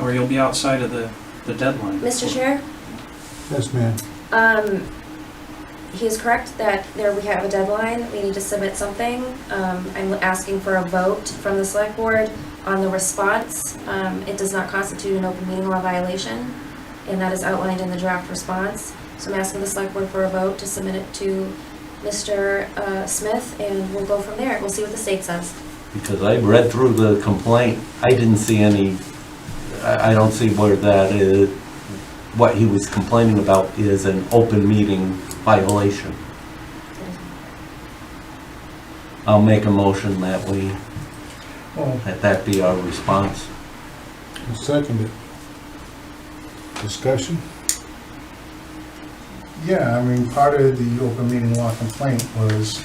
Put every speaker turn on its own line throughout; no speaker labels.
or you'll be outside of the, the deadline.
Mr. Chair,
Yes, ma'am.
um, he is correct that there we have a deadline, we need to submit something. Um, I'm asking for a vote from the select board on the response. Um, it does not constitute an open meeting law violation, and that is outlined in the draft response. So I'm asking the select board for a vote to submit it to Mr. uh, Smith, and we'll go from there. We'll see what the state says.
Because I read through the complaint, I didn't see any, I, I don't see where that is, what he was complaining about is an open meeting violation. I'll make a motion that we,
Uh,
Oh,
that that be our response.
I'll second it. Discussion?
Yeah, I mean, part of the open meeting law complaint was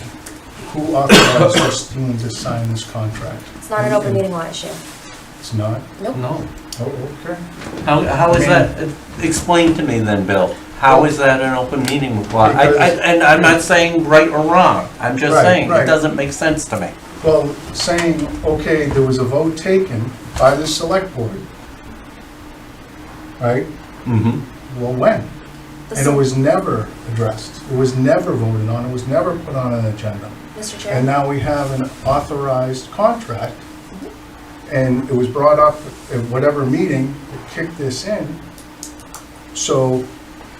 who authorized Christine to sign this contract?
It's not an open meeting law issue.
It's not?
Nope.
No.
Oh, okay.
How, Um, how is that, uh, explain to me then, Bill, how is that an open meeting law? I, I,
Because-
and I'm not saying right or wrong, I'm just
Right,
saying, it
right.
doesn't make sense to me.
Well, saying, okay, there was a vote taken by the select board. Right?
Mm-hmm.
Well, when?
The
And it was never addressed. It was never voted on. It was never put on an agenda.
Mr. Chair?
And now we have an authorized contract, and it was brought up at whatever meeting that kicked this in. So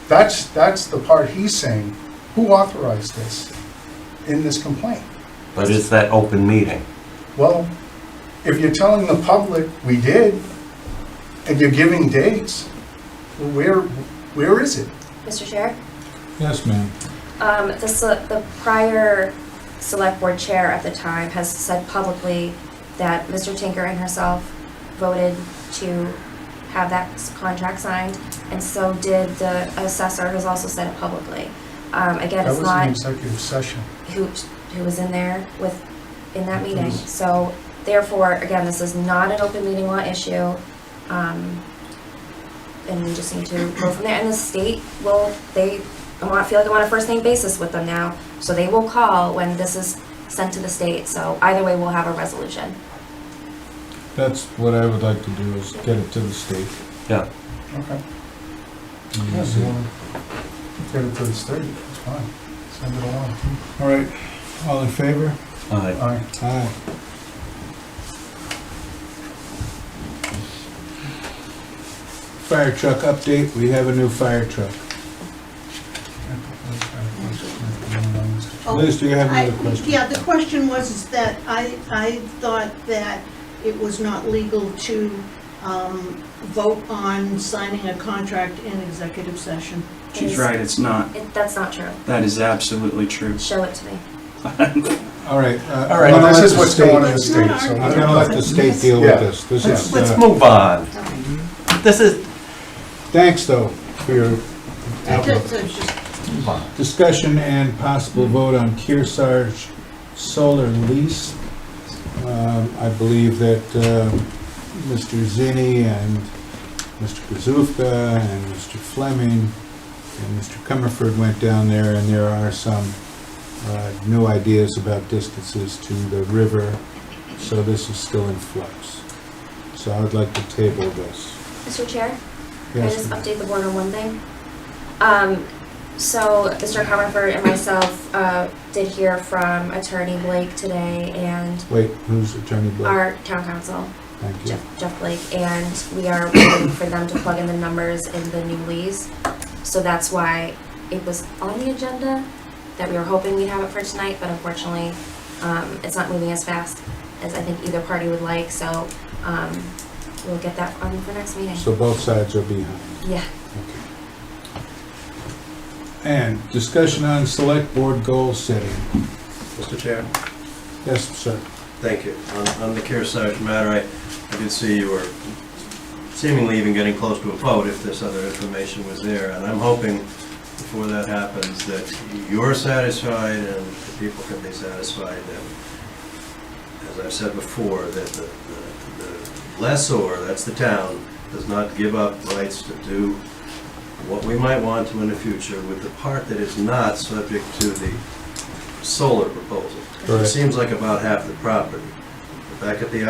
that's, that's the part he's saying, who authorized this in this complaint?
But is that open meeting?
Well, if you're telling the public, we did, and you're giving dates, well, where, where is it?
Mr. Chair?
Yes, ma'am.
Um, the, se- the prior select board chair at the time has said publicly that Mr. Tinker and herself voted to have that s- contract signed, and so did the assessor, who's also said it publicly. Um, again,
That
it's
was an
not
executive session.
who, who was in there with, in that meeting.
Mhm.
So therefore, again, this is not an open meeting law issue. Um, and we just need to go from there. And the state will, they, I want, feel like I'm on a first name basis with them now. So they will call when this is sent to the state. So either way, we'll have a resolution.
That's what I would like to do, is get it to the state.
Yeah.
Okay.
and
Yeah,
see.
so Get it to the state, it's fine, send it along.
All right, all in favor?
Uh,
Aye.
Aye. Fire truck update, we have a new fire truck.
Oh,
Liz, do you have another
I-
question?
Yeah, the question was is that I, I thought that it was not legal to um, vote on signing a contract in executive session.
She's right, it's not.
It, that's not true.
That is absolutely true.
Show it to me.
All right. uh,
All right,
I'm gonna
well, this
let
is
the
what's
state-
going on in the
It's not
state, so.
our-
I'm gonna let the state deal with
Yeah.
this. This
Let's,
is,
let's
uh,
move on.
Okay.
This is,
thanks though for your
I
outlook.
just- I just-
move on.
Discussion and possible vote on Kearsarge solar lease. Um, I believe that um, Mr. Zinni and Mr. Kazufka and Mr. Fleming and Mr. Comerford went down there, and there are some uh, new ideas about distances to the river, so this is still in flux. So I would like to table this.
Mr. Chair? Can I
Yes,
just update the board on one thing? Um, so Mr. Comerford and myself, uh, did hear from Attorney Blake today and
Wait, who's Attorney Blake?
our town council,
Thank you.
Jeff, Jeff Blake, and we are waiting for them to plug in the numbers in the new lease. So that's why it was on the agenda, that we were hoping we'd have it for tonight, but unfortunately, um, it's not moving as fast as I think either party would like, so, um, we'll get that on for next meeting.
So both sides are behind.
Yeah.
And discussion on select board goal setting.
Mr. Chair,
Yes, sir.
thank you. On- On the Kearsarge matter, I I did see you were seemingly even getting close to a vote if this other information was there, and I'm hoping before that happens that you're satisfied and the people can be satisfied that, as I've said before, that the the- the lessor, that's the town, does not give up rights to do what we might want to in the future with the part that is not subject to the solar proposal. It
Correct.
seems like about half the property. Back at the